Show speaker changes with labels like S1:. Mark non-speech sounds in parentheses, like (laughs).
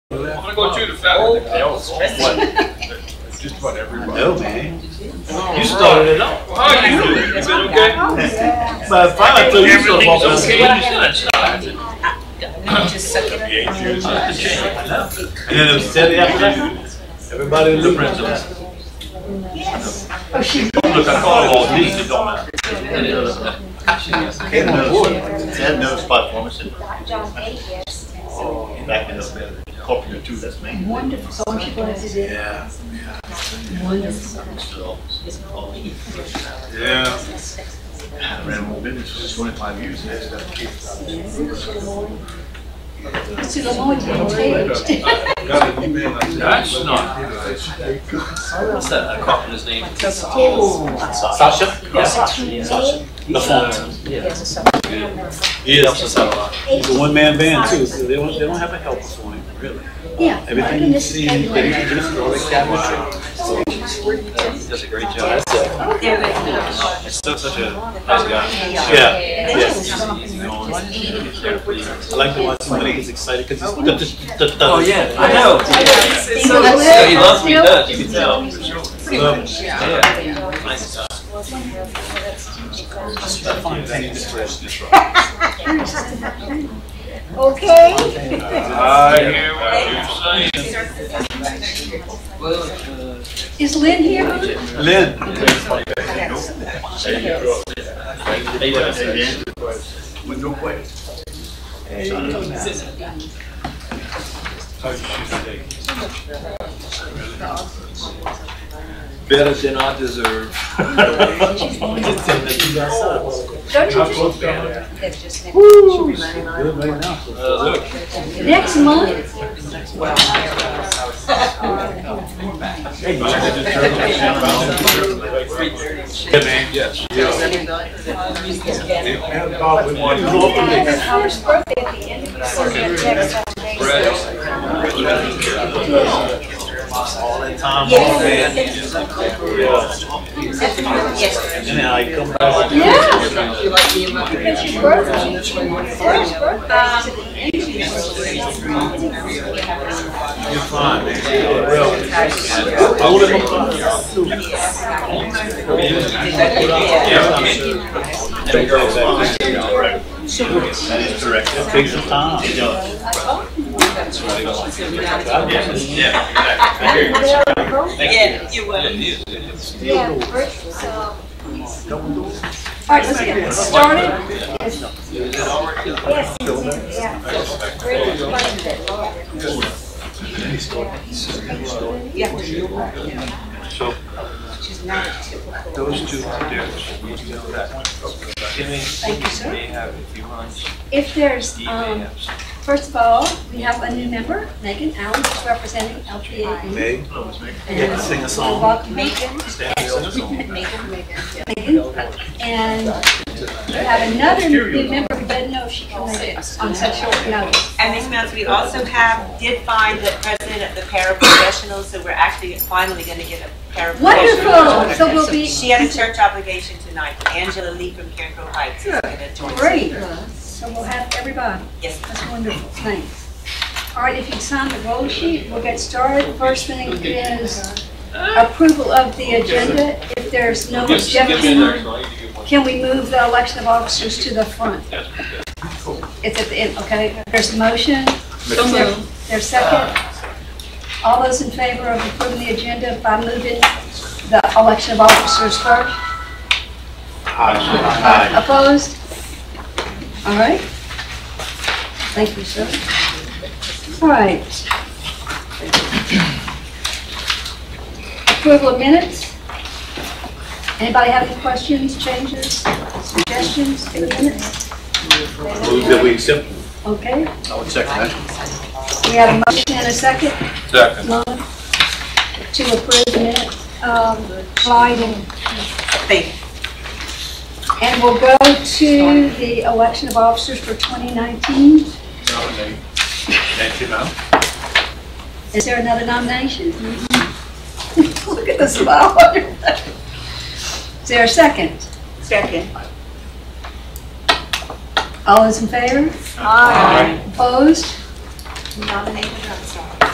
S1: gonna go shoot a fat.
S2: Oh.
S3: Just about everybody.
S4: No, man.
S2: You started it off.
S1: Well, how are you doing? You been okay?
S2: But finally, I told you something about
S1: Everything's
S2: this.
S1: okay. You should start.
S5: Just suck it up.
S3: Yeah, it's yours.
S2: I know. And then it was Saturday afternoon, everybody in the print office.
S6: Oh,
S2: Don't look at all of all these, it don't matter.
S4: Ted knows, Ted knows spot performance and
S6: John Akis.
S4: back in the corporate too, that's me.
S6: Wonderful. So when she goes, is it?
S4: Yeah. Still, always.
S3: Yeah.
S4: I ran my own business for twenty-five years and that stuff keeps.
S6: To the Lord, you take.
S3: Got an email. I said,
S2: That's not- What's that, a carpenter's name? Sasha? Yeah. Sasha. The font. Yeah.
S6: There's a
S2: He helps us out a lot.
S6: He's a
S2: one-man band too, so they don't, they don't have a helper for him, really.
S6: Yeah. Everything you see,
S2: He does a great job. He's still such a nice guy.
S6: Yeah.
S2: I like the one somebody gets excited because he's. Oh, yeah,
S5: I know.
S2: So he loves what he does, you can tell. Yeah. Nice guy.
S6: Okay.
S1: I hear what you're saying.
S6: Is Lynn here?
S2: Lynn.
S4: With no way.
S2: Better than I deserve.
S6: Don't you
S3: Close
S6: just?
S3: down.
S6: That's just next-
S2: Uh, look,
S6: Next month.
S3: Yes.
S6: Yes, Howard's birthday at the end of the year. Next Monday.
S2: all that time, all that.
S6: Yes.
S5: Yes.
S2: And then I come back.
S6: Yeah.
S5: You like me and my
S6: It's your birthday. It's your birthday.
S2: You're fine, man. Well, I would have. Yeah, I mean, that girl's
S4: That is correct.
S2: Takes some time.
S4: It does.
S2: Yeah.
S5: Yeah, you will.
S6: Yeah, virtual, so. All right, let's get started. Yes, yeah. Great, like that, Lord.
S3: Those two are different. We know that.
S6: Thank you, sir.
S3: They have, if you want,
S6: If there's,
S3: they
S6: um,
S3: have.
S6: first of all, we have a new member, Megan Allen, who's representing LPA.
S2: Hey,
S6: And
S2: sing a
S6: we
S2: song.
S6: welcome Megan,
S2: Stand here, sing a song.
S6: Megan. And we have another new member who doesn't know if she can make it on such short notice.
S7: And Ms. Mills, we also have, did find the president of the paraprofessionals, so we're actually finally gonna get a paraprofessional.
S6: Wonderful, so we'll be.
S7: She had a church obligation tonight, Angela Lee from Careco Heights is gonna join. us.
S6: Great, so we'll have everybody.
S7: Yes.
S6: That's wonderful, thanks. All right, if you sign the roll sheet, we'll get started. First thing is approval of the agenda. If there's no
S1: Yes, give me
S6: objection,
S1: another. I need to get one.
S6: can we move the election of officers to the front?
S1: Yes, yes.
S6: It's at the end, okay? There's a motion, there's second. All those in favor of approving the agenda by moving the election of officers first?
S4: Aye.
S6: Opposed? All right. Thank you, sir. All right. Approval of minutes? Anybody have any questions, changes, suggestions for the minutes?
S4: Move that we accept.
S6: Okay,
S4: I would second that.
S6: we have a motion and a second,
S3: Second.
S6: Lon, to approve the minutes. Um, Clyde and
S7: Thank you.
S6: And we'll go to the election of officers for 2019. Is there another nomination? (laughs) Look at this smile. Is there a second?
S7: Second.
S6: All those in favor?
S7: Aye.
S6: Opposed?
S7: Nominated, I'm sorry.